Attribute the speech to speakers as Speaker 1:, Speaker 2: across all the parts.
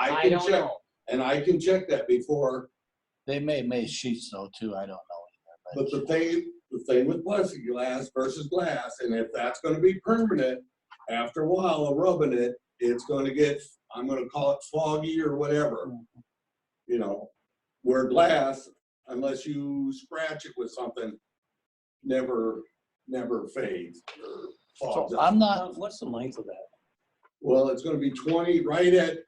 Speaker 1: I
Speaker 2: I
Speaker 1: can
Speaker 2: don't
Speaker 1: check,
Speaker 2: know.
Speaker 1: and I can check that before,
Speaker 3: They may make sheets though too, I don't know.
Speaker 1: but the thing, the thing with plexiglass versus glass, and if that's gonna be permanent, after a while of rubbing it, it's gonna get, I'm gonna call it foggy or whatever.
Speaker 2: Mm-hmm.
Speaker 1: You know, where glass, unless you scratch it with something, never, never fades or fogs
Speaker 3: So
Speaker 1: up.
Speaker 3: I'm not,
Speaker 4: What's the length of that?
Speaker 1: Well, it's gonna be twenty, right at,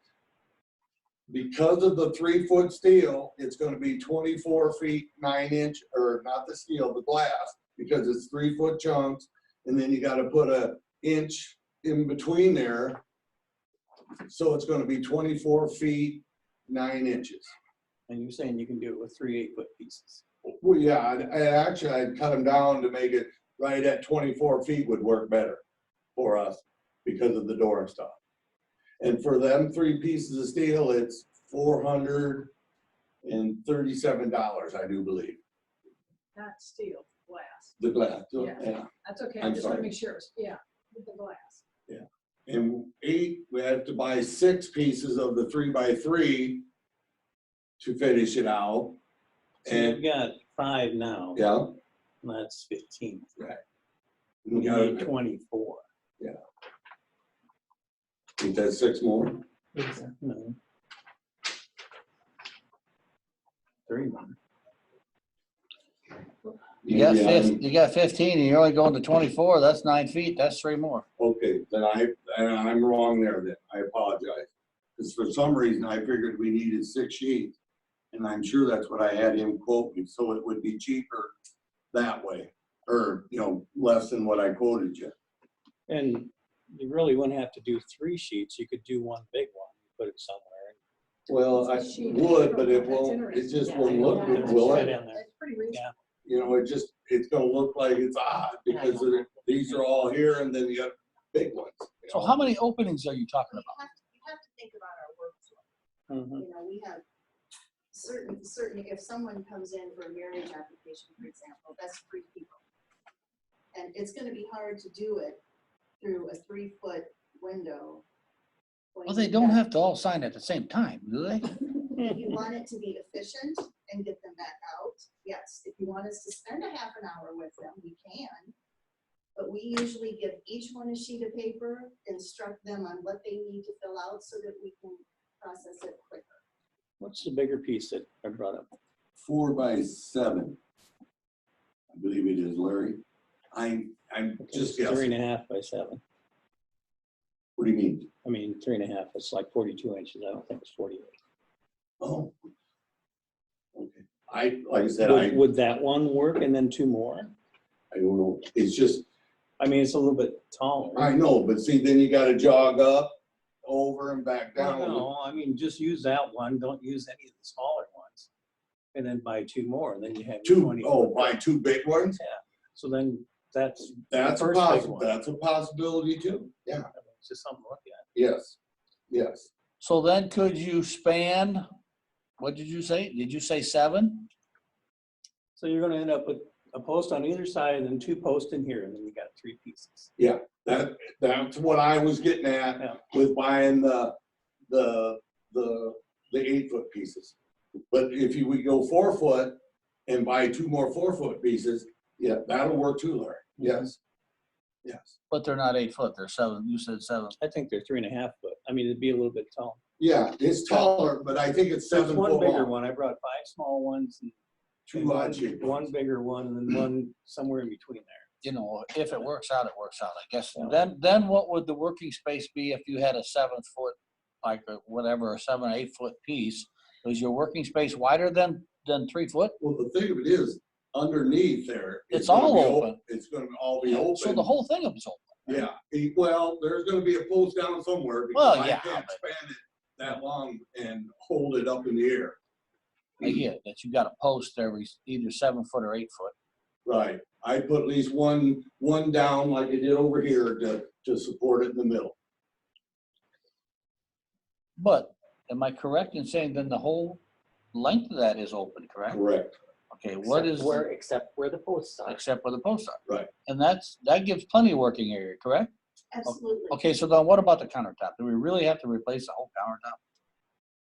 Speaker 1: because of the three-foot steel, it's gonna be twenty-four feet, nine inch, or not the steel, the glass, because it's three-foot chunks, and then you gotta put a inch in between there. So it's gonna be twenty-four feet, nine inches.
Speaker 4: And you're saying you can do it with three eight-foot pieces?
Speaker 1: Well, yeah, I, I actually, I'd cut them down to make it right at twenty-four feet would work better for us because of the door and stuff. And for them three pieces of steel, it's four hundred and thirty-seven dollars, I do believe,
Speaker 5: not steel, glass.
Speaker 1: the glass.
Speaker 5: Yeah.
Speaker 1: yeah.
Speaker 5: That's okay, I
Speaker 1: I'm
Speaker 5: just want to
Speaker 1: sorry.
Speaker 5: make sure, it's- yeah, with the glass.
Speaker 1: And eight, we had to buy six pieces of the three by three to finish it out.
Speaker 4: So
Speaker 1: And,
Speaker 4: you've got five now,
Speaker 1: yeah.
Speaker 4: and that's fifteen.
Speaker 1: we
Speaker 4: You need
Speaker 1: got-
Speaker 4: twenty-four.
Speaker 1: We got six more.
Speaker 4: No. Three more.
Speaker 3: you
Speaker 1: Yeah,
Speaker 3: got fif, you got fifteen and you're only going to twenty-four, that's nine feet, that's three more.
Speaker 1: Okay, then I, then I'm wrong there then. I apologize. Because for some reason, I figured we needed six sheets. And I'm sure that's what I had him quote me, so it would be cheaper that way. Or, you know, less than what I quoted you.
Speaker 4: And you really wouldn't have to do three sheets. You could do one big one, put it somewhere.
Speaker 1: Well, I
Speaker 5: She-
Speaker 1: would, but it
Speaker 5: that's
Speaker 1: won't, it
Speaker 5: interesting.
Speaker 1: just
Speaker 5: Yeah,
Speaker 1: won't look
Speaker 5: yeah,
Speaker 1: good,
Speaker 5: that's
Speaker 1: will
Speaker 4: Fit
Speaker 1: it?
Speaker 5: right.
Speaker 4: in there.
Speaker 5: That's pretty reasonable.
Speaker 1: You know, it just, it's gonna look like it's odd because of it- these are all here and then you got big ones. you
Speaker 3: So
Speaker 1: know?
Speaker 3: how many openings are you talking
Speaker 6: You
Speaker 3: about?
Speaker 6: have to, you have to think about our workflow.
Speaker 4: Mhm.
Speaker 6: You know, we have certain, certain, if someone comes in for a marriage application, for example, that's three people. And it's gonna be hard to do it through a three-foot window. when
Speaker 3: Well, they
Speaker 6: you've
Speaker 3: don't
Speaker 6: got-
Speaker 3: have to all sign at the same time, do they?
Speaker 6: If you want it to be efficient and get them back out, yes. If you want us to spend a half an hour with them, we can. But we usually give each one a sheet of paper, instruct them on what they need to fill out so that we can process it quicker.
Speaker 4: What's the bigger piece that I brought up?
Speaker 1: four by seven. I believe it is, Larry. I, I'm
Speaker 4: Okay,
Speaker 1: just
Speaker 4: Three
Speaker 1: guessing.
Speaker 4: and a half by seven.
Speaker 1: What do you mean?
Speaker 4: I mean, three and a half, it's like forty-two inches. I don't think it's forty-eight.
Speaker 1: Oh. Okay. I, like I said, I,
Speaker 4: Would, would that one work and then two more?
Speaker 1: I don't know. It's just,
Speaker 4: I mean, it's a little bit taller.
Speaker 1: I know, but see, then you gotta jog up, over and back
Speaker 4: Well,
Speaker 1: down.
Speaker 4: No, I mean, just use that one, don't use any of the smaller ones. And then buy two more, and then you have. your
Speaker 1: Two,
Speaker 4: 20.
Speaker 1: oh, buy two big ones?
Speaker 4: So then that's
Speaker 1: That's a
Speaker 4: First big
Speaker 1: possi,
Speaker 4: one.
Speaker 1: that's a possibility too. Yeah,
Speaker 4: I mean, it's just something to look at.
Speaker 1: yes, yes.
Speaker 3: So then could you span, what did you say? Did you say seven?
Speaker 4: So you're gonna end up with a post on either side and then two posts in here, and then you got three pieces.
Speaker 1: That, that's what I was getting
Speaker 4: Yeah.
Speaker 1: at with buying the, the, the, the eight foot pieces. But if you, we go four foot and buy two more four foot pieces, yeah, that'll work too, Larry.
Speaker 3: Mm-hmm.
Speaker 1: Yes. Yes.
Speaker 3: But they're not eight foot, they're seven, you said seven.
Speaker 4: I think they're three and a half foot. I mean, it'd be a little bit tall.
Speaker 1: Yeah, it's taller, but I think it's
Speaker 4: There's
Speaker 1: seven
Speaker 4: one
Speaker 1: foot
Speaker 4: bigger
Speaker 1: long.
Speaker 4: one. I brought five small ones and. and
Speaker 1: Two
Speaker 4: one-
Speaker 1: odd shaped
Speaker 4: One
Speaker 1: ones.
Speaker 4: bigger one and then one somewhere in between there.
Speaker 3: You know, if it works out, it works out, I guess.
Speaker 4: Yeah.
Speaker 3: Then, then what would the working space be if you had a seven foot, like a whatever, a seven, or eight foot piece? Is your working space wider than, than three foot?
Speaker 1: Well, the thing of it is, underneath there.
Speaker 3: It's
Speaker 1: gonna
Speaker 3: all
Speaker 1: be o-
Speaker 3: open.
Speaker 1: It's gonna all be open.
Speaker 3: So the whole thing is open.
Speaker 1: Yeah, he- well, there's gonna be a post down somewhere because
Speaker 3: Well,
Speaker 1: I
Speaker 3: yeah,
Speaker 1: can't span it that long and hold it up in the air.
Speaker 3: I get it, that you got a post every, either seven foot or eight foot.
Speaker 1: Right, I put at least one, one down like I did over here to, to support it in the middle.
Speaker 3: But am I correct in saying then the whole length of that is open, correct?
Speaker 1: Correct.
Speaker 3: Okay, what
Speaker 7: Except
Speaker 3: is,
Speaker 7: Where, except where the posts are.
Speaker 3: except where the posts are?
Speaker 1: Right.
Speaker 3: And that's, that gives plenty of working area, correct?
Speaker 6: Absolutely.
Speaker 3: Okay, so then what about the countertop? Do we really have to replace the whole countertop?